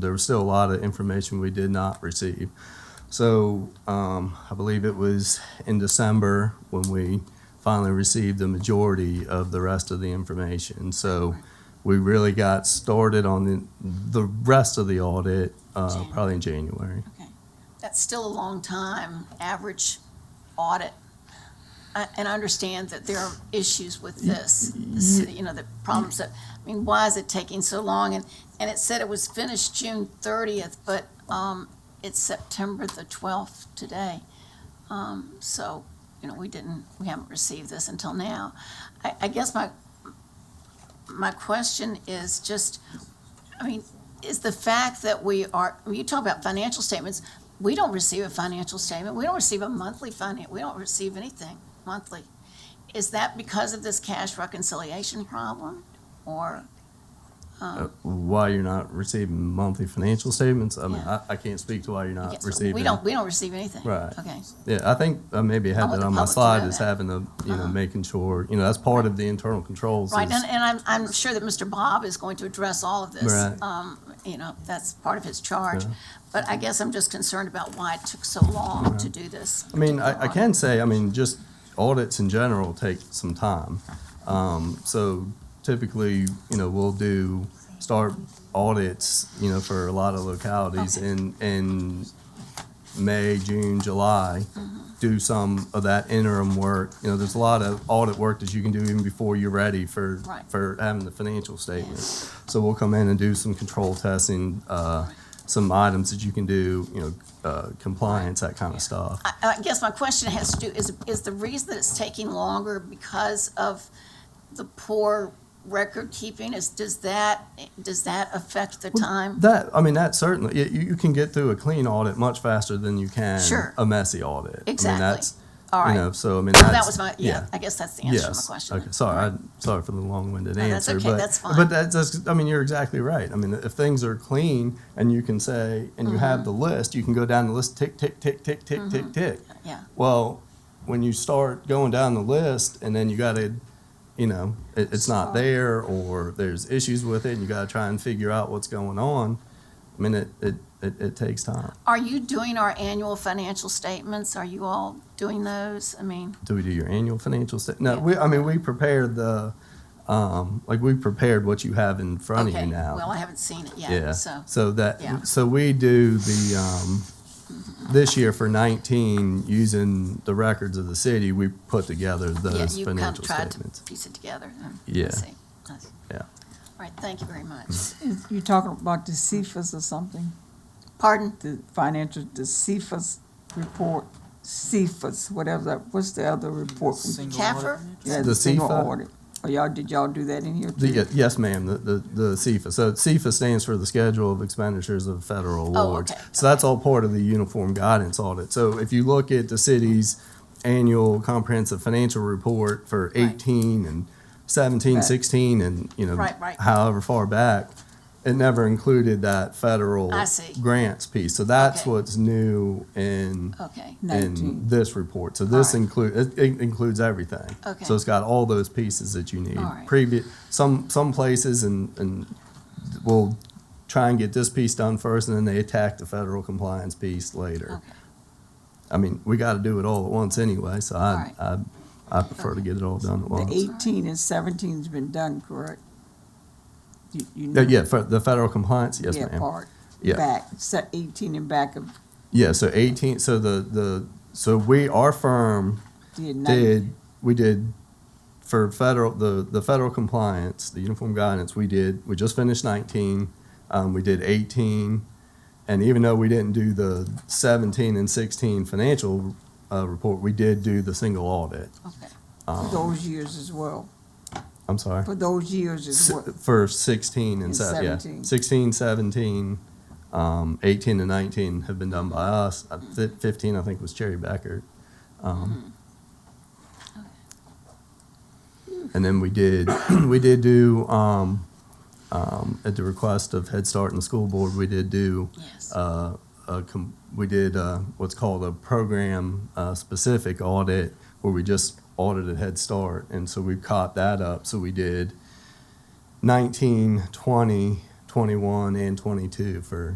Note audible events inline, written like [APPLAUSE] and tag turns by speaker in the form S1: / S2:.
S1: there was still a lot of information we did not receive. So um, I believe it was in December when we finally received the majority of the rest of the information. So we really got started on the, the rest of the audit uh, probably in January.
S2: Okay, that's still a long time, average audit. I- And I understand that there are issues with this, the city, you know, the problems that, I mean, why is it taking so long? And, and it said it was finished June thirtieth, but, um, it's September the twelfth today. Um, so, you know, we didn't, we haven't received this until now. I, I guess my, my question is just, I mean, is the fact that we are, when you talk about financial statements, we don't receive a financial statement, we don't receive a monthly finance, we don't receive anything monthly. Is that because of this cash reconciliation problem? Or,
S1: Uh, why you're not receiving monthly financial statements? I mean,
S2: Yeah.
S1: I, I can't speak to why you're not
S2: Yes,
S1: receiving.
S2: we don't, we don't receive anything?
S1: Right.
S2: Okay,
S1: Yeah, I think I maybe
S2: I
S1: had
S2: want
S1: that
S2: the
S1: on my
S2: public to
S1: slide
S2: know
S1: is
S2: that.
S1: having the, you know, making sure, you know, that's part of the internal controls.
S2: Uh-huh. right,
S1: is-
S2: and, and I'm, I'm sure that Mr. Bob is going to address all of this.
S1: Right.
S2: Um, you know, that's part of his charge,
S1: Yeah.
S2: but I guess I'm just concerned about why it took so long to do this.
S1: I mean, I, I
S2: particular audit.
S1: can say, I mean, just audits in general take some time. Um, so typically, you know, we'll do, start audits, you know, for a lot of localities
S2: Okay.
S1: in, in May, June, July,
S2: Mm-hmm.
S1: do some of that interim work. You know, there's a lot of audit work that you can do even before you're ready for,
S2: Right.
S1: for having the financial statement. So we'll come in and do some control testing, uh, some items that you can do, you know, uh, compliance, that kind of stuff.
S2: I- I guess my question has to do, is, is the reason that it's taking longer because of the poor record keeping? Is, does that, does that affect the time?
S1: That I mean, that certainly you, you can get through a clean audit much faster than you can
S2: Sure.
S1: a messy audit. I mean,
S2: Exactly.
S1: that's
S2: All
S1: you
S2: right.
S1: know. So I mean,
S2: Well, that
S1: that's-
S2: was my, yeah, I guess that's the answer to my
S1: Yes.
S2: question.
S1: Okay. Sorry. I, sorry for the long-winded
S2: No, that's
S1: answer,
S2: okay,
S1: but
S2: that's fine.
S1: but that's, that's I mean, you're exactly right. I mean, if things are clean and you can say and you have
S2: Mm-hmm.
S1: the list, you can go down the list tick tick tick tick tick tick tick.
S2: Yeah,
S1: Well, when you start going down the list and then you got to, you know, it, it's not there or there's issues with it and you got to try and figure out what's going on. I mean, it, it, it, it takes time.
S2: are you doing our annual financial statements? Are you all doing those? I mean,
S1: Do we do your annual financial stat? No, we, I mean, we prepare the, um, like we prepared what you have in front of
S2: okay,
S1: you now.
S2: well, I haven't seen it
S1: Yeah.
S2: yet, so,
S1: So that,
S2: Yeah.
S1: so we do the, um, this year for nineteen, using the records of the city, we put together
S2: yeah,
S1: those
S2: you kind of
S1: financial
S2: tried to
S1: statements.
S2: piece it together. and
S1: Yeah. Mm-hmm.
S2: see. All
S1: Yeah.
S2: right, thank you very much.
S3: Is- You're talking about the CFAs or something,
S2: Pardon?
S3: the financial, the CFAs report, CFAs, whatever that, what's the other report?
S2: CAFR?
S3: Yeah,
S1: The
S3: single
S1: CFA?
S3: audit. Oh, y'all, did y'all do that in here
S1: The,
S3: too?
S1: ye- yes, ma'am, the, the, the CFA. So CFA stands for the Schedule of Expenditures of Federal
S2: Oh,
S1: Awards.
S2: okay,
S1: So that's all part of the Uniform Guidance Audit. So if you look at the city's annual comprehensive financial report for
S2: Right.
S1: eighteen and seventeen,
S3: Right.
S1: sixteen, and, you know,
S2: Right, right.
S1: however far back, it never included that federal
S2: I see.
S1: grants piece. So that's
S2: Okay.
S1: what's new in,
S2: Okay.
S1: in
S3: Nineteen.
S1: this report. So this
S2: All right.
S1: include, it, it includes everything.
S2: Okay.
S1: So it's got all those pieces that you need.
S2: All right.
S1: Previous, some, some places and, and we'll try and get this piece done first and then they attack the federal compliance piece later.
S2: Okay.
S1: I mean, we gotta do it all at once anyway, so I, I, I prefer to get it all done at
S3: The
S1: once.
S3: eighteen and seventeen's been done, correct? You, you
S1: Yeah,
S3: know.
S1: Uh, Yeah, for the federal compliance, yes
S3: Yeah,
S1: ma'am.
S3: part,
S1: Yeah.
S3: back, se- eighteen and back of,
S1: Yeah, so eighteen, so the, the, so we, our firm
S3: did nineteen.
S1: did, we did for federal, the, the federal compliance, the uniform guidance, we did, we just finished nineteen, um, we did eighteen. And even though we didn't do the seventeen and sixteen financial, uh, report, we did do the single audit.
S2: Okay.
S1: um,
S3: for those years as well,
S1: I'm sorry.
S3: for those years as
S1: S-
S3: well.
S1: For sixteen and
S3: And
S1: se- yeah,
S3: 17.
S1: sixteen, seventeen, um, eighteen and nineteen have been done by us. Uh, fi- Fifteen, I think, was Cherry Becker. Um, And then we did, [CLEARS THROAT] we did do, um, um, at the request of Head Start and the school board, we did do,
S2: Yes.
S1: uh, a com- we did, uh, what's called a program, uh, specific audit where we just audited Head Start. And so we caught that up. So we did 19, 20, 21, 22, 21 and 22 for